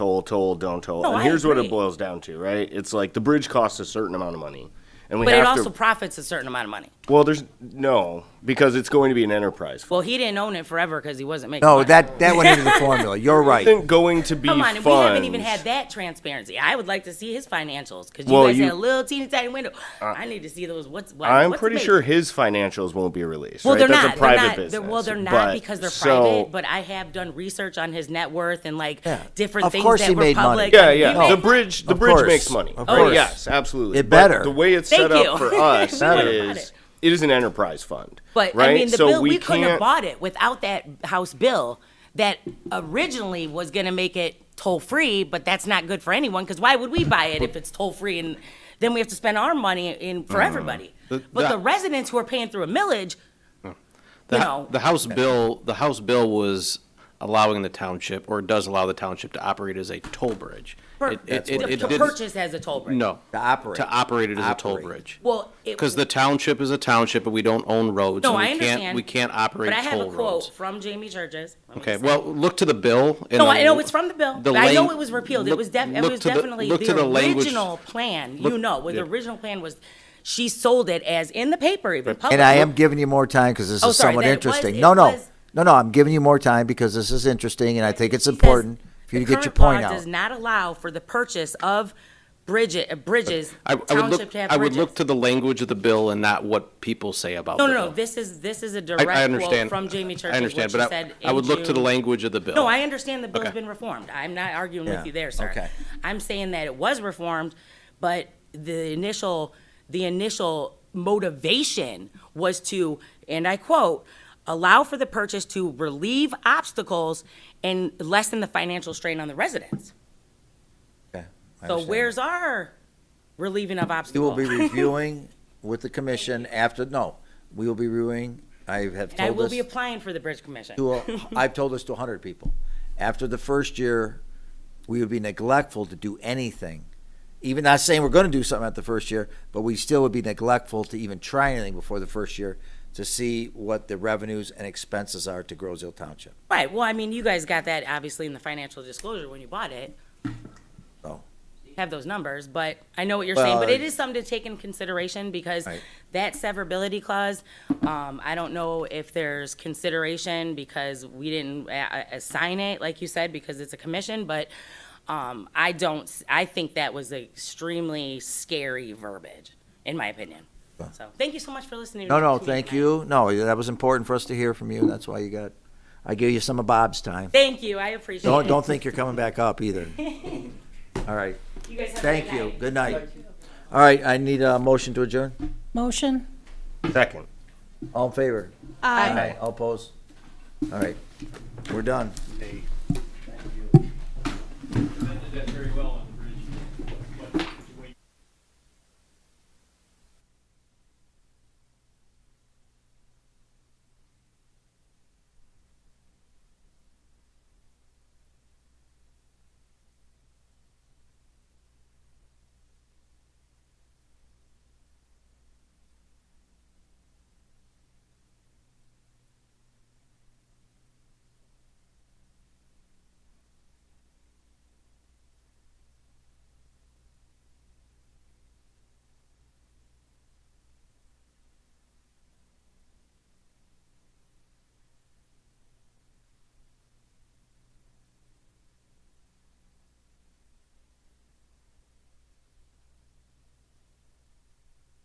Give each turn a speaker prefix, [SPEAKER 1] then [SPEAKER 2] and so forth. [SPEAKER 1] toll, toll, don't toll.
[SPEAKER 2] No,
[SPEAKER 1] and
[SPEAKER 2] I
[SPEAKER 1] here's what
[SPEAKER 2] agree.
[SPEAKER 1] it boils down to, right? It's like the bridge costs a certain amount of money. And we
[SPEAKER 2] But it
[SPEAKER 1] have
[SPEAKER 2] also
[SPEAKER 1] to,
[SPEAKER 2] profits a certain amount of money.
[SPEAKER 1] well, there's no, because it's going to be an enterprise. fund.
[SPEAKER 2] Well, he didn't own it forever because he wasn't making.
[SPEAKER 3] No,
[SPEAKER 2] money.
[SPEAKER 3] that, that went into the formula. You're right.
[SPEAKER 1] isn't going to be
[SPEAKER 2] Come on,
[SPEAKER 1] funds.
[SPEAKER 2] we haven't even had that transparency. I would like to see his financials because you
[SPEAKER 1] Well,
[SPEAKER 2] guys
[SPEAKER 1] you- Uh,
[SPEAKER 2] had a little teeny tiny window. I need to see those. What's what,
[SPEAKER 1] I'm
[SPEAKER 2] what's
[SPEAKER 1] pretty
[SPEAKER 2] made.
[SPEAKER 1] sure his financials won't be released.
[SPEAKER 2] Well,
[SPEAKER 1] right?
[SPEAKER 2] they're
[SPEAKER 1] That's
[SPEAKER 2] not.
[SPEAKER 1] a private
[SPEAKER 2] they're not.
[SPEAKER 1] business.
[SPEAKER 2] They're, well, they're not
[SPEAKER 1] But-
[SPEAKER 2] because they're
[SPEAKER 1] so-
[SPEAKER 2] private. But I have done research on his net worth and like
[SPEAKER 3] Yeah.
[SPEAKER 2] different
[SPEAKER 3] Of
[SPEAKER 2] things
[SPEAKER 3] course
[SPEAKER 2] that
[SPEAKER 3] he
[SPEAKER 2] were
[SPEAKER 3] made money.
[SPEAKER 2] public.
[SPEAKER 1] Yeah,
[SPEAKER 2] He
[SPEAKER 1] yeah.
[SPEAKER 2] made
[SPEAKER 1] The
[SPEAKER 2] money.
[SPEAKER 1] bridge, the
[SPEAKER 3] Of
[SPEAKER 1] bridge
[SPEAKER 3] course.
[SPEAKER 1] makes money.
[SPEAKER 3] Of
[SPEAKER 1] Oh,
[SPEAKER 3] course.
[SPEAKER 1] yes, absolutely.
[SPEAKER 3] It
[SPEAKER 1] But
[SPEAKER 3] better.
[SPEAKER 1] The way it's
[SPEAKER 2] Thank
[SPEAKER 1] set up
[SPEAKER 2] you.
[SPEAKER 1] for us
[SPEAKER 2] We would've bought
[SPEAKER 1] is
[SPEAKER 2] it.
[SPEAKER 1] it is an enterprise fund.
[SPEAKER 2] But
[SPEAKER 1] right?
[SPEAKER 2] I mean, the
[SPEAKER 1] so
[SPEAKER 2] bill
[SPEAKER 1] we,
[SPEAKER 2] we, couldn't
[SPEAKER 1] can't,
[SPEAKER 2] have bought it without that house bill that originally was going to make it toll free. But that's not good for anyone because why would we buy it if it's toll free and then we have to spend our money in for everybody?
[SPEAKER 4] Uh-huh. The-
[SPEAKER 2] but the
[SPEAKER 4] that-
[SPEAKER 2] residents who are paying through a millage,
[SPEAKER 4] The,
[SPEAKER 2] you know,
[SPEAKER 4] the House bill, the House bill was allowing the township, or does allow the township to operate as a toll bridge.
[SPEAKER 2] per-
[SPEAKER 4] It- it-
[SPEAKER 2] to,
[SPEAKER 4] it- it
[SPEAKER 2] to
[SPEAKER 4] didn't-
[SPEAKER 2] purchase as a toll bridge.
[SPEAKER 4] No.
[SPEAKER 3] To operate.
[SPEAKER 4] To operate it as a toll
[SPEAKER 3] Operate.
[SPEAKER 4] bridge.
[SPEAKER 2] Well, it-
[SPEAKER 4] Because the township is a township, and we don't own roads.
[SPEAKER 2] No,
[SPEAKER 4] and we
[SPEAKER 2] I
[SPEAKER 4] can't-
[SPEAKER 2] understand.
[SPEAKER 4] We can't operate
[SPEAKER 2] But I have a
[SPEAKER 4] toll
[SPEAKER 2] quote
[SPEAKER 4] roads.
[SPEAKER 2] from Jamie Churches. Let me
[SPEAKER 4] Okay,
[SPEAKER 2] just-
[SPEAKER 4] well, look to the bill. and
[SPEAKER 2] No,
[SPEAKER 4] then
[SPEAKER 2] I know it's from the bill.
[SPEAKER 4] the
[SPEAKER 2] but I know
[SPEAKER 4] lang-
[SPEAKER 2] it was repealed. it
[SPEAKER 4] look-
[SPEAKER 2] was, def- it
[SPEAKER 4] look
[SPEAKER 2] was
[SPEAKER 4] to the-
[SPEAKER 2] definitely
[SPEAKER 4] look
[SPEAKER 2] the,
[SPEAKER 4] to language-
[SPEAKER 2] original plan. you
[SPEAKER 4] look-
[SPEAKER 2] know, where
[SPEAKER 4] yeah.
[SPEAKER 2] the original plan was she sold it as in the paper, even public.
[SPEAKER 3] And I am giving you more time because this
[SPEAKER 2] Oh,
[SPEAKER 3] is
[SPEAKER 2] sorry,
[SPEAKER 3] somewhat
[SPEAKER 2] that it was-
[SPEAKER 3] interesting.
[SPEAKER 2] it
[SPEAKER 3] No, no,
[SPEAKER 2] was-
[SPEAKER 3] no, no, I'm giving you more time because this is interesting and I think
[SPEAKER 2] She
[SPEAKER 3] it's
[SPEAKER 2] says
[SPEAKER 3] important for
[SPEAKER 2] the
[SPEAKER 3] you to get your
[SPEAKER 2] current law
[SPEAKER 3] point out.
[SPEAKER 2] does not allow for the purchase of bridges, uh, bridges
[SPEAKER 4] I, I would
[SPEAKER 2] township
[SPEAKER 4] look,
[SPEAKER 2] to have
[SPEAKER 4] I would look
[SPEAKER 2] bridges.
[SPEAKER 4] to the language of the bill and not what people say about the
[SPEAKER 2] No,
[SPEAKER 4] bill.
[SPEAKER 2] no, no, this is, this is a
[SPEAKER 4] I-
[SPEAKER 2] direct
[SPEAKER 4] I
[SPEAKER 2] quote
[SPEAKER 4] understand.
[SPEAKER 2] from Jamie Churches.
[SPEAKER 4] I understand,
[SPEAKER 2] what
[SPEAKER 4] but
[SPEAKER 2] she
[SPEAKER 4] I,
[SPEAKER 2] said
[SPEAKER 4] I
[SPEAKER 2] in
[SPEAKER 4] would look to the
[SPEAKER 2] June.
[SPEAKER 4] language of the bill.
[SPEAKER 2] No, I understand the bill's
[SPEAKER 4] Okay.
[SPEAKER 2] been reformed. I'm not arguing
[SPEAKER 3] Oh. Yeah,
[SPEAKER 2] with you there, sir.
[SPEAKER 3] okay.
[SPEAKER 2] I'm saying that it was reformed, but the initial the initial motivation was to, and I quote, allow for the purchase to relieve obstacles and lessen the financial strain on the residents.
[SPEAKER 3] Okay, I
[SPEAKER 2] So
[SPEAKER 3] understand.
[SPEAKER 2] where's our relieving of
[SPEAKER 3] We will
[SPEAKER 2] obstacles?
[SPEAKER 3] be reviewing with the commission after, no, we will be reviewing, I have told us.
[SPEAKER 2] And I will be applying for the bridge commission.
[SPEAKER 3] to a, I've told this to 100 people. After the first year, we would be neglectful to do anything. Even not saying we're going to do something at the first year, but we still would be neglectful to even try anything before the first year to see what the revenues and expenses are to Groseal Township.
[SPEAKER 2] Right, well, I mean, you guys got that obviously in the financial disclosure when you bought it.
[SPEAKER 3] So,
[SPEAKER 2] have those numbers, but I know what you're saying, but
[SPEAKER 3] Oh. Well,
[SPEAKER 2] it is something to take in consideration because
[SPEAKER 3] Right.
[SPEAKER 2] that severability clause, um, I don't know if there's consideration because we didn't a- a- assign it, like you said, because it's a commission, but, um, I don't, s- I think that was extremely scary verbiage, in my opinion. So, thank you so much for listening. to
[SPEAKER 3] no,
[SPEAKER 2] me
[SPEAKER 3] no,
[SPEAKER 2] tonight.
[SPEAKER 3] thank you. No, that was important for us to hear from you. That's why you got, I give you some of Bob's time.
[SPEAKER 2] Thank you, I appreciate it.
[SPEAKER 3] Don't, don't think you're coming back up either. All right,
[SPEAKER 2] You guys have a
[SPEAKER 3] thank
[SPEAKER 2] good
[SPEAKER 3] you.
[SPEAKER 2] night.
[SPEAKER 3] Good night. All right, I need a motion to adjourn.
[SPEAKER 5] Motion?
[SPEAKER 1] Second.
[SPEAKER 3] All in favor? Aye. All opposed? All right, we're done.